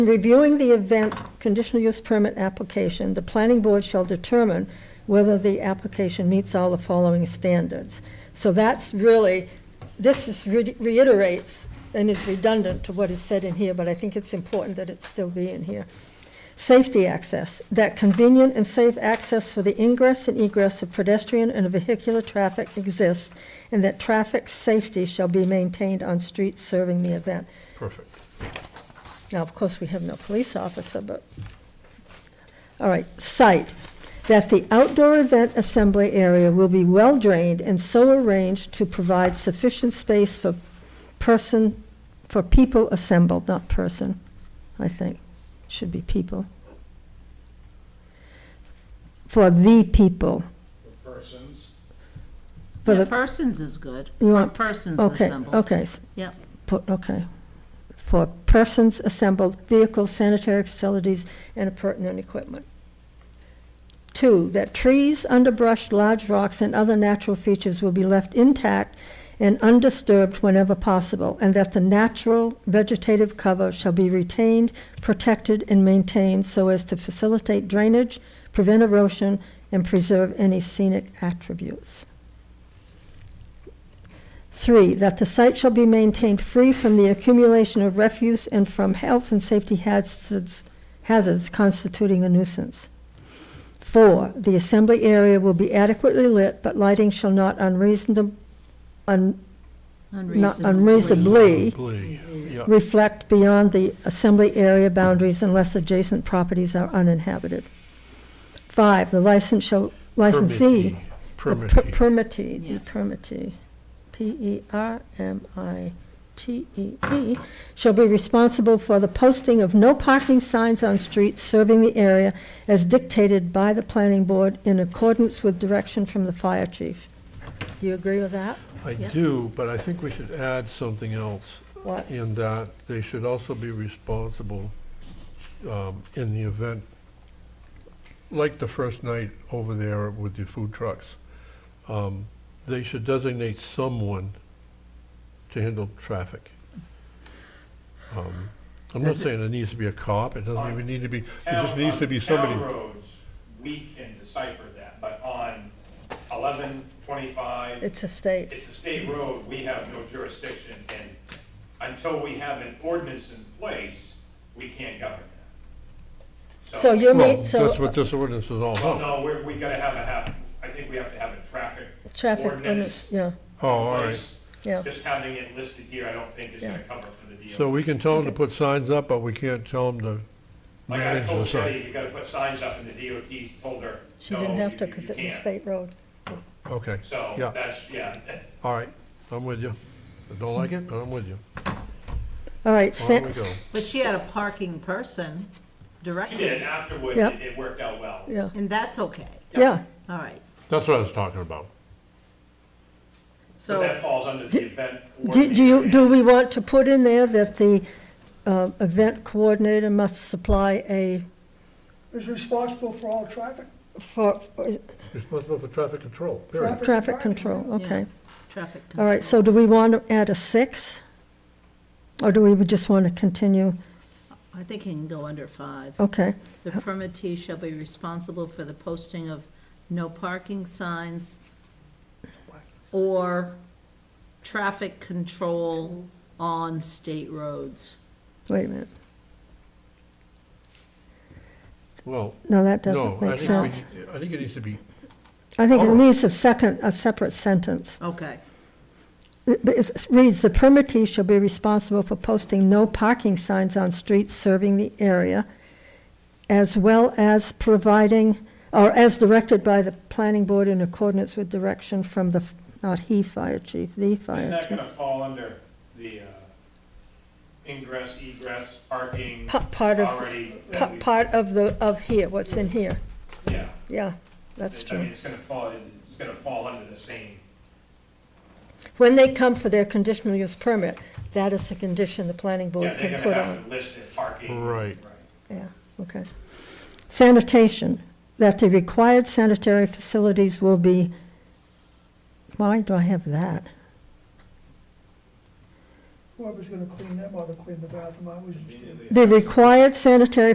In reviewing the event conditional use permit application, the planning board shall determine whether the application meets all the following standards. So that's really, this is re- reiterates and is redundant to what is said in here, but I think it's important that it still be in here. Safety access, that convenient and safe access for the ingress and egress of pedestrian and vehicular traffic exists, and that traffic safety shall be maintained on streets serving the event. Perfect. Now, of course, we have no police officer, but, all right, site, that the outdoor event assembly area will be well-drained and so arranged to provide sufficient space for person, for people assembled, not person, I think, should be people. For the people, the persons, for the, Yeah, persons is good. you want, Persons okay, assembled. okay. s- Yep. put, okay, for persons assembled, vehicles, sanitary facilities, and appurtenant equipment. Two, that trees, underbrush, large rocks, and other natural features will be left intact and undisturbed whenever possible, and that the natural vegetative cover shall be retained, protected, and maintained so as to facilitate drainage, prevent erosion, and preserve any scenic attributes. Three, that the site shall be maintained free from the accumulation of refuse and from health and safety hazards, hazards constituting a nuisance. Four, the assembly area will be adequately lit, but lighting shall not unreasonable, un, not unreasonably Glee, yeah. reflect beyond the assembly area boundaries unless adjacent properties are uninhabited. Five, the license shall, licensee. The per- Permittee. Permittee, the E Yeah. permittee, P-E-R-M-I-T-E-E, E shall be responsible for the posting of no parking signs on streets serving the area as dictated by the planning board in accordance with direction from the fire chief. Do you agree with that? I Yeah. do, but I think we should add something else What? in that they should also be responsible um, in the event, like the first night over there with the food trucks. um, They should designate someone to handle traffic. Um, I'm not saying it needs to be a cop, it doesn't even need to be, it just town- needs to be on somebody. Town roads, we can decipher that, but on eleven twenty-five, It's a state. it's a state road, we have no jurisdiction, and until we have an ordinance in place, we can't govern that. So you're, Well, mean- that's so what this ordinance is all Well, about. no, we're, we gotta have a half, I think we have to have a traffic traffic, ordinance. yeah, Oh, all in right. place. yeah. Just having it listed here, I don't think is Yeah. gonna cover for the deal. So we can tell them to put signs up, but we can't tell them to Like I manage the told sign. Jenny, you gotta put signs up, and the DOT told her, She no, you you didn't have to can't. because it was state road. Okay, So, Yeah. that's, yeah, all right, I'm with you. I don't like it, but I'm with you. All right, On sen- we go. But she had a parking person she did, directing, afterward, Yep. it, it worked out well. yeah, and that's okay. yeah, All right, That's what I was talking about. So that so, falls under the event Do, do you, coordinator. do we want to put in there that the, uh, event coordinator must supply a, is responsible for all traffic, for, for- is- Responsible for traffic control, period. Traffic traffic control. control, okay. traffic. All right, so do we want to add a six? Or do we just want to continue, control. I think it can go under five. okay, The permittee shall be responsible for the posting of no parking signs or traffic control on state roads. wait a minute, Well, no, that no, doesn't I make think, sense. we- I think it needs to be, I think it Alright. needs a second, a separate sentence. Okay, It it reads, "The permittee shall be responsible for posting no parking signs on streets serving the area, as well as providing, or as directed by the planning board in accordance with direction from the, not he fire chief, the Isn't fire that chief." gonna fall under the, uh, ingress, egress, parking Pa- Part of, already? that pa- we- part of the, of here, what's in here, Yeah, yeah, that's I true. mean, it's gonna fall, it's gonna fall under the same, When they come for their conditional use permit, that is a condition the planning yeah, board they're can put gonna on. have to list their parking. Right. Yeah, okay. Sanitation, that the required sanitary facilities will be, why do I have that? whoever's gonna clean them ought to clean the bathroom, I was just. The required sanitary